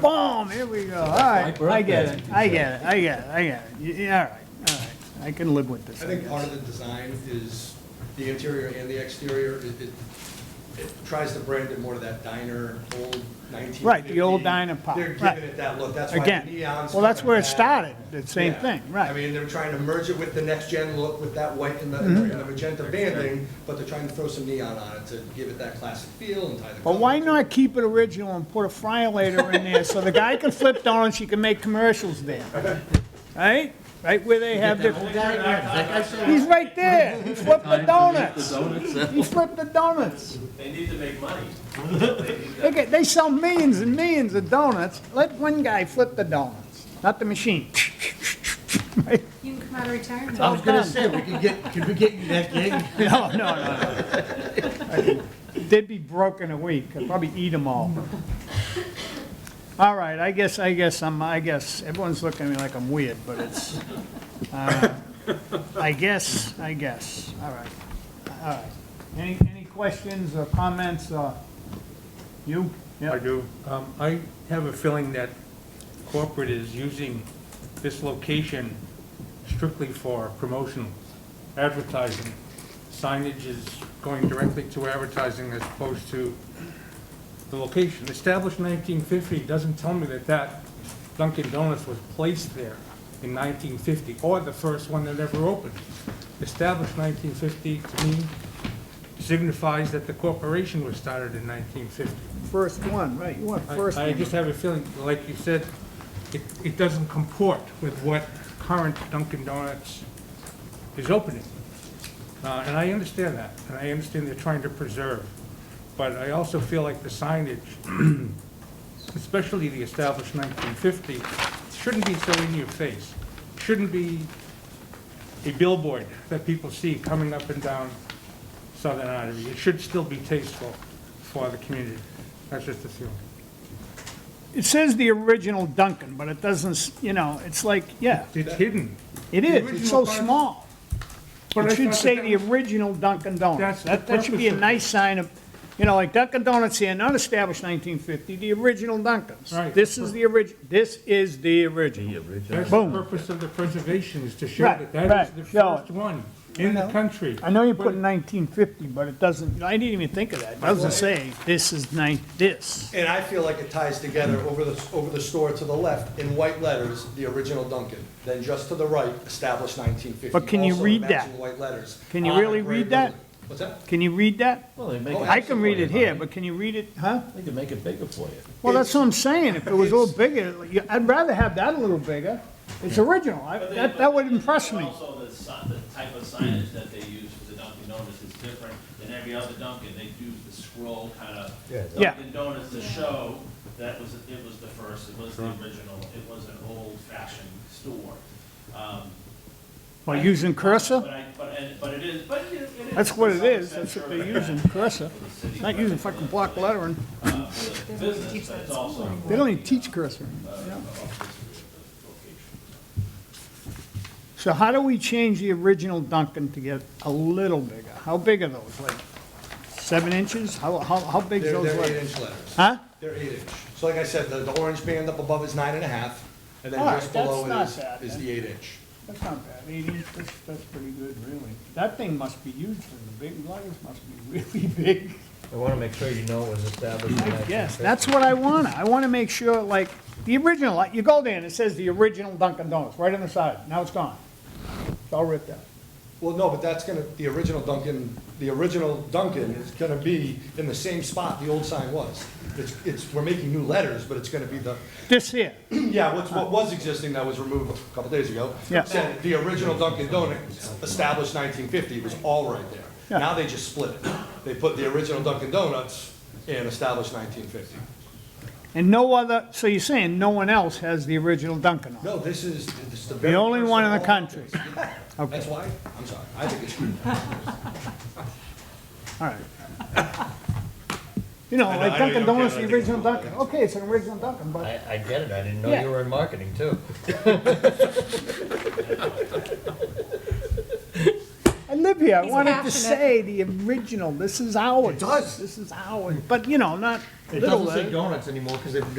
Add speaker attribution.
Speaker 1: Boom, here we go. All right, I get it, I get it, I get it, I get it. Y- Yeah, all right, all right. I can live with this,
Speaker 2: I
Speaker 1: I
Speaker 2: think part
Speaker 1: guess.
Speaker 2: of the design is the interior and the exterior. It, it, it tries to brand it more to that diner, old nineteen.
Speaker 1: Right, the old diner pop,
Speaker 2: They're
Speaker 1: right.
Speaker 2: giving it that look. That's why the
Speaker 1: Again,
Speaker 2: neon's.
Speaker 1: well, that's
Speaker 2: coming
Speaker 1: where it
Speaker 2: back.
Speaker 1: started, the same
Speaker 2: Yeah.
Speaker 1: thing,
Speaker 2: I
Speaker 1: right.
Speaker 2: mean, they're trying to merge it with the next gen look with that white and the,
Speaker 1: Mm-hmm.
Speaker 2: and the magenta banding, but they're trying to throw some neon on it to give it that classic feel and tie the.
Speaker 1: But why
Speaker 2: color.
Speaker 1: not keep it original and put a friolator in there so the guy can flip donuts, he can make commercials there? Right? Right where they have their, he's right there, he flipped the donuts. He flipped the donuts.
Speaker 3: They need to make money.
Speaker 1: They get, they sell millions and millions of donuts, let one guy flip the donuts, not the machine. Right?
Speaker 4: You can come out of retirement.
Speaker 5: I was gonna say, we could get, could we get you that gig?
Speaker 1: No, no, no. no. They'd be broke in a week, I'd probably eat them all. All right, I guess, I guess, I'm, I guess, everyone's looking at me like I'm weird, but it's, uh, I guess, I guess, all right, all right. Any, any questions or comments, or you? Yeah.
Speaker 6: I do. Um, I have a feeling that corporate is using this location strictly for promotional advertising. Signage is going directly to advertising as opposed to the location. Established nineteen fifty doesn't tell me that that Dunkin' Donuts was placed there in nineteen fifty, or the first one that ever opened. Established nineteen fifty, to me, signifies that the corporation was started in nineteen fifty.
Speaker 1: First one, right, you want
Speaker 6: I-
Speaker 1: first
Speaker 6: I
Speaker 1: one.
Speaker 6: just have a feeling, like you said, it, it doesn't comport with what current Dunkin' Donuts is opening. Uh, and I understand that, and I understand they're trying to preserve. But I also feel like the signage, especially the established nineteen fifty, shouldn't be so in your face. Shouldn't be a billboard that people see coming up and down Southern Artery. It should still be tasteful for the community. That's just a feeling.
Speaker 1: It says the original Duncan, but it doesn't, s- you know, it's like, yeah,
Speaker 6: It's hidden.
Speaker 1: it
Speaker 6: The
Speaker 1: is, it's so
Speaker 6: original part-
Speaker 1: small.
Speaker 6: But I
Speaker 1: It
Speaker 6: thought
Speaker 1: should
Speaker 6: that
Speaker 1: say
Speaker 6: that
Speaker 1: the
Speaker 6: was-
Speaker 1: original Dunkin' Donuts.
Speaker 6: That's the
Speaker 1: That, that should be a
Speaker 6: purpose of it.
Speaker 1: nice sign of, you know, like Dunkin' Donuts here, not established nineteen fifty, the original Dunkin's.
Speaker 6: Right.
Speaker 1: This is the orig, this is the original.
Speaker 6: That's the
Speaker 1: Boom.
Speaker 6: purpose of the preservation, is to show
Speaker 1: Right,
Speaker 6: that that
Speaker 1: right,
Speaker 6: is the
Speaker 1: show
Speaker 6: first one in the country.
Speaker 1: I know you put nineteen fifty, but it doesn't, I didn't even think of that. It doesn't say, this is nine, this.
Speaker 2: And I feel like it ties together over the, over the store to the left in white letters, the original Duncan. Then just to the right, established nineteen fifty.
Speaker 1: But can you read that?
Speaker 2: white letters.
Speaker 1: Can you
Speaker 2: on a
Speaker 1: really
Speaker 2: gray
Speaker 1: read that?
Speaker 2: building. What's that?
Speaker 1: Can you read that?
Speaker 2: Oh,
Speaker 1: I can read it here, but can you read it, huh?
Speaker 5: They could make it bigger for you.
Speaker 1: Well, that's what I'm saying, if it was a little bigger, you- I'd rather have that a little bigger. It's original, I-
Speaker 3: But they-
Speaker 1: that, that would impress
Speaker 3: but
Speaker 1: me.
Speaker 3: Also, the si- the type of signage that they use for the Dunkin' Donuts is different than every other Dunkin'. They do the scroll kind of
Speaker 1: Yeah.
Speaker 3: Dunkin' Donuts to show that was, it was the first, it was the original, it was an old fashioned store. Um,
Speaker 1: By using
Speaker 3: But
Speaker 1: cursor?
Speaker 3: I, but, and- but it is, but it is. it is
Speaker 1: That's what it
Speaker 3: to some
Speaker 1: is,
Speaker 3: extent
Speaker 1: that's what
Speaker 3: urban
Speaker 1: they're using,
Speaker 3: for
Speaker 1: cursor.
Speaker 3: the city,
Speaker 1: Not
Speaker 3: but
Speaker 1: using
Speaker 3: for the-
Speaker 1: fucking block lettering.
Speaker 3: uh, for the Business, but it's also.
Speaker 1: They don't even teach cursor. So how do we change the original Duncan to get a little bigger? How big are those, like seven inches? How, how, how big's
Speaker 2: They're,
Speaker 1: those
Speaker 2: they're eight
Speaker 1: letters?
Speaker 2: inch letters.
Speaker 1: Huh?
Speaker 2: They're eight inch. So like I said, the, the orange band up above is nine and a half, and then
Speaker 1: All right,
Speaker 2: just below it
Speaker 1: that's
Speaker 2: is,
Speaker 1: not bad,
Speaker 2: is
Speaker 1: then.
Speaker 2: the eight inch.
Speaker 1: That's not bad, eight inches, that's, that's pretty good, really. That thing must be huge, and the big letters must be really big.
Speaker 5: I wanna make sure you know it was established in nineteen
Speaker 1: Yes,
Speaker 5: fifty.
Speaker 1: that's what I want. I want to make sure, like, the original, like, you go there and it says the original Dunkin' Donuts, right on the side. Now it's gone. It's all ripped out.
Speaker 2: Well, no, but that's gonna, the original Duncan, the original Duncan is gonna be in the same spot the old sign was. It's, it's, we're making new letters, but it's gonna be the,
Speaker 1: This here,
Speaker 2: yeah, what's, what was existing that was removed a couple days ago.
Speaker 1: Yeah.
Speaker 2: Said the original Dunkin' Donuts, established nineteen fifty, was all right
Speaker 1: Yeah.
Speaker 2: there. Now they just split it. They put the original Dunkin' Donuts and established nineteen fifty.
Speaker 1: and no other, so you're saying no one else has the original Dunkin' on? it?
Speaker 2: No, this is, this is the
Speaker 1: The
Speaker 2: very.
Speaker 1: only
Speaker 2: first
Speaker 1: one
Speaker 2: of
Speaker 1: in the
Speaker 2: all.
Speaker 1: country.
Speaker 2: That's
Speaker 1: Okay,
Speaker 2: why, I'm sorry, I think it's,
Speaker 1: all right. You know,
Speaker 2: I know, I
Speaker 1: like
Speaker 2: know
Speaker 1: Dunkin'
Speaker 2: you don't
Speaker 1: Donuts,
Speaker 2: care,
Speaker 1: the
Speaker 2: I think it's
Speaker 1: original
Speaker 2: cool.
Speaker 1: Dunkin'. Okay, it's an original Dunkin', but
Speaker 5: I, I get it, I didn't know
Speaker 1: Yeah.
Speaker 5: you were in marketing too.
Speaker 1: I live here, I
Speaker 4: He's
Speaker 1: wanted to
Speaker 4: passionate.
Speaker 1: say the original, this is ours.
Speaker 5: does.
Speaker 1: This is ours, but you know, not
Speaker 5: It
Speaker 1: little
Speaker 5: doesn't
Speaker 1: letters.
Speaker 5: say donuts anymore, cause they've